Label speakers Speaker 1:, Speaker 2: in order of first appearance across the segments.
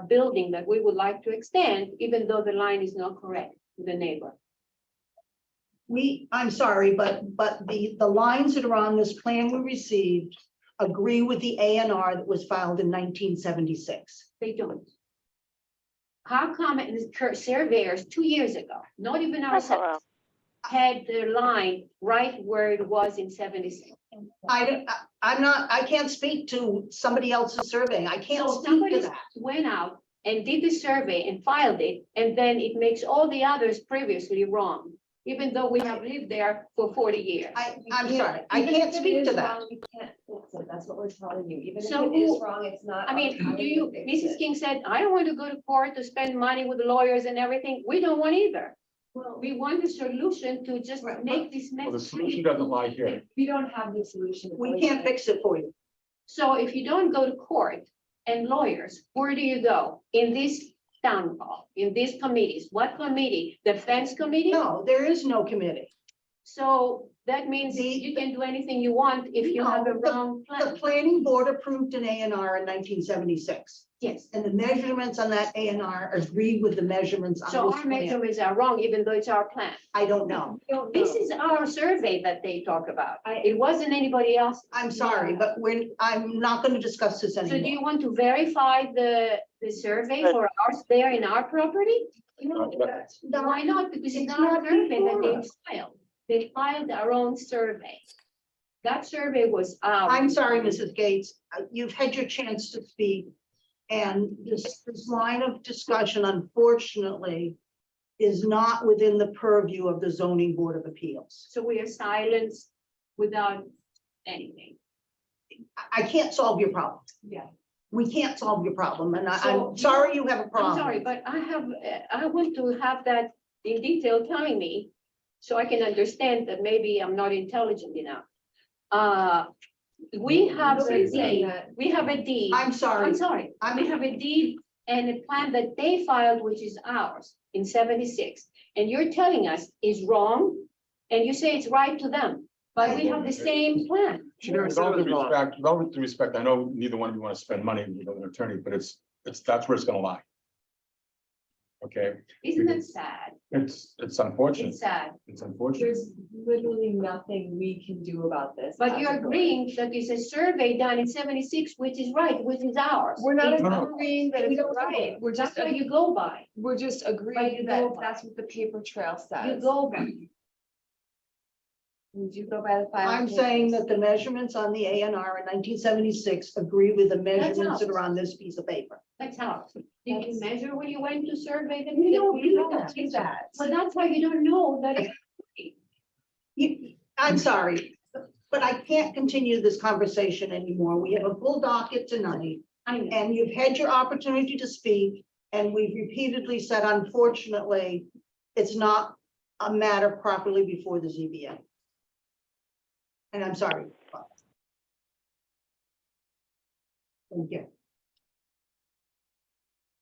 Speaker 1: a building that we would like to extend, even though the line is not correct to the neighbor.
Speaker 2: We, I'm sorry, but, but the, the lines that are on this plan we received agree with the A and R that was filed in nineteen seventy-six.
Speaker 1: They don't. How come it is cur- surveyors two years ago, not even ourselves, had their line right where it was in seventy-six?
Speaker 2: I, don't- I- I'm not, I can't speak to somebody else's survey. I can't
Speaker 1: So
Speaker 2: speak to
Speaker 1: somebody
Speaker 2: that.
Speaker 1: went out and did the survey and filed it, and then it makes all the others previously wrong, even though we have lived there for forty years.
Speaker 2: I, I'm sorry, I can't speak to that.
Speaker 3: So that's what we're telling you, even if
Speaker 1: So
Speaker 3: it is
Speaker 1: who-
Speaker 3: wrong, it's not.
Speaker 1: I mean, do you, Mrs.
Speaker 3: King?
Speaker 1: King said, I don't want to go to court to spend money with lawyers and everything. We don't want either. We want a solution to just
Speaker 2: Right.
Speaker 1: make this
Speaker 4: Well, the
Speaker 1: mess.
Speaker 4: solution doesn't lie here.
Speaker 3: We don't have the solution.
Speaker 2: We can't fix it for you.
Speaker 1: So if you don't go to court and lawyers, where do you go? In this town hall, in these committees? What committee? The fence committee?
Speaker 2: No, there is no committee.
Speaker 1: So that means
Speaker 2: The-
Speaker 1: you can do anything you want if you have a
Speaker 2: No, the-
Speaker 1: wrong
Speaker 2: The
Speaker 1: plan.
Speaker 2: planning board approved an A and R in nineteen seventy-six.
Speaker 1: Yes.
Speaker 2: And the measurements on that A and R agree with the measurements on
Speaker 1: So
Speaker 2: this
Speaker 1: our
Speaker 2: plan.
Speaker 1: measurements are wrong, even though it's our plan.
Speaker 2: I don't know.
Speaker 1: This is our survey that they talk about.
Speaker 3: I-
Speaker 1: It wasn't anybody else.
Speaker 2: I'm sorry,
Speaker 3: Yeah.
Speaker 2: but we're, I'm not going to discuss this
Speaker 1: So do
Speaker 2: anymore.
Speaker 1: you want to verify the, the survey for ours there in our property?
Speaker 4: Uh, but-
Speaker 1: Why not? Because it's
Speaker 2: it's
Speaker 1: not
Speaker 2: not
Speaker 1: a survey that
Speaker 2: before
Speaker 1: they filed. They filed their own survey. That survey was. ours.
Speaker 2: I'm sorry, Mrs. Gates, Uh, you've had your chance to speak. And this, this line of discussion unfortunately is not within the purview of the zoning board of appeals.
Speaker 1: So we are silenced without anything.
Speaker 2: I, I can't solve your problem.
Speaker 3: Yeah.
Speaker 2: We can't solve your problem and I,
Speaker 1: So-
Speaker 2: I'm sorry you have a problem.
Speaker 1: I'm sorry, but I have, uh, I want to have that in detail telling me, so I can understand that maybe I'm not intelligent enough. Uh, we have a
Speaker 4: Nobody's
Speaker 3: saying
Speaker 1: deed,
Speaker 3: that.
Speaker 1: we have a deed,
Speaker 2: I'm
Speaker 1: I'm
Speaker 2: sorry.
Speaker 1: sorry, we
Speaker 2: I'm,
Speaker 1: have a deed and a plan that they filed, which is ours in seventy-six. And you're telling us is wrong, and you say it's right to them, but we have the same plan.
Speaker 4: With all due respect, with all due respect, I know neither one of you want to spend money with an attorney, but it's, it's, that's where it's gonna lie. Okay,
Speaker 1: Isn't that sad?
Speaker 4: it's, it's unfortunate,
Speaker 1: It's sad,
Speaker 4: it's unfortunate.
Speaker 3: There's literally nothing we can do about this.
Speaker 1: but you're
Speaker 3: as a board.
Speaker 1: agreeing that it's a survey done in seventy-six, which is right, which is ours.
Speaker 5: We're not
Speaker 1: It's
Speaker 4: No, no.
Speaker 5: agreeing that
Speaker 1: We
Speaker 5: it's
Speaker 1: don't
Speaker 5: right.
Speaker 1: know.
Speaker 5: We're
Speaker 1: That's
Speaker 5: just,
Speaker 1: what you go by,
Speaker 5: we're just
Speaker 3: But you
Speaker 5: agreeing that
Speaker 3: go by-
Speaker 5: that's what the paper trail
Speaker 1: you
Speaker 5: says.
Speaker 1: go by.
Speaker 3: We do go by the file.
Speaker 2: I'm saying that the measurements on the A and R in nineteen seventy-six agree with the measurements that are on this piece of paper.
Speaker 1: That's how. Did you
Speaker 3: That's-
Speaker 1: measure when you went to survey them?
Speaker 3: We don't, we don't do
Speaker 1: that.
Speaker 3: that.
Speaker 1: But that's why you don't know that. it-
Speaker 2: You, I'm sorry, but I can't continue this conversation anymore. We have a full docket tonight
Speaker 1: I know.
Speaker 2: and you've had your opportunity to speak. And we've repeatedly said unfortunately, it's not a matter properly before the ZBA. And I'm sorry. Thank you.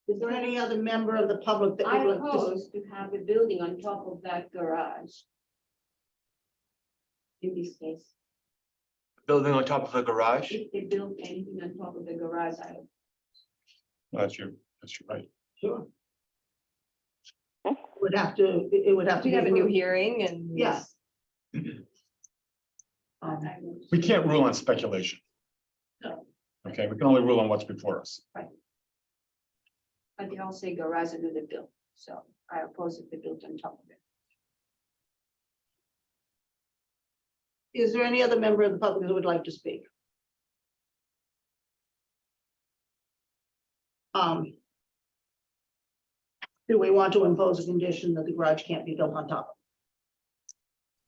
Speaker 2: Is there any other member of the public that
Speaker 1: I
Speaker 2: would like to? speak?
Speaker 1: propose to have a building on top of that garage. In this case,
Speaker 6: building on top of a garage.
Speaker 1: if they build anything on top of the garage, I would.
Speaker 4: That's your, that's your right.
Speaker 2: Sure. Would have to, it it would have to.
Speaker 5: We
Speaker 2: be
Speaker 5: have a new
Speaker 2: approved.
Speaker 5: hearing and.
Speaker 2: Yeah.
Speaker 1: I would-
Speaker 4: We can't rule on speculation.
Speaker 1: No.
Speaker 4: Okay, we can only rule on what's before us.
Speaker 1: But they all say garage under the bill, so I oppose if they built on top of it.
Speaker 2: Is there any other member of the public who would like to speak? Um. Do we want to impose a condition that the garage can't be built on top?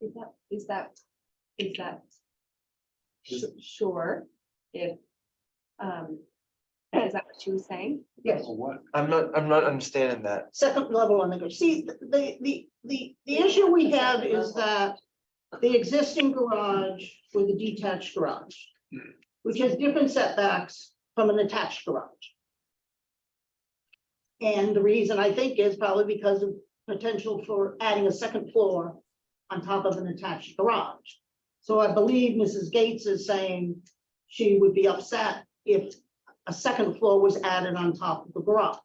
Speaker 3: Is that, is that, is that
Speaker 4: Is
Speaker 3: su- sure if, um, is that what she was saying?
Speaker 2: Yes.
Speaker 4: what?
Speaker 6: I'm not, I'm not understanding that.
Speaker 2: Second level on the, gar- see, the- the, the, the, the issue we have is that the existing garage with the detached garage, which has different setbacks from an attached garage. And the reason I think is probably because of potential for adding a second floor on top of an attached garage. So I believe Mrs. Gates is saying she would be upset if a second floor was added on top of the garage.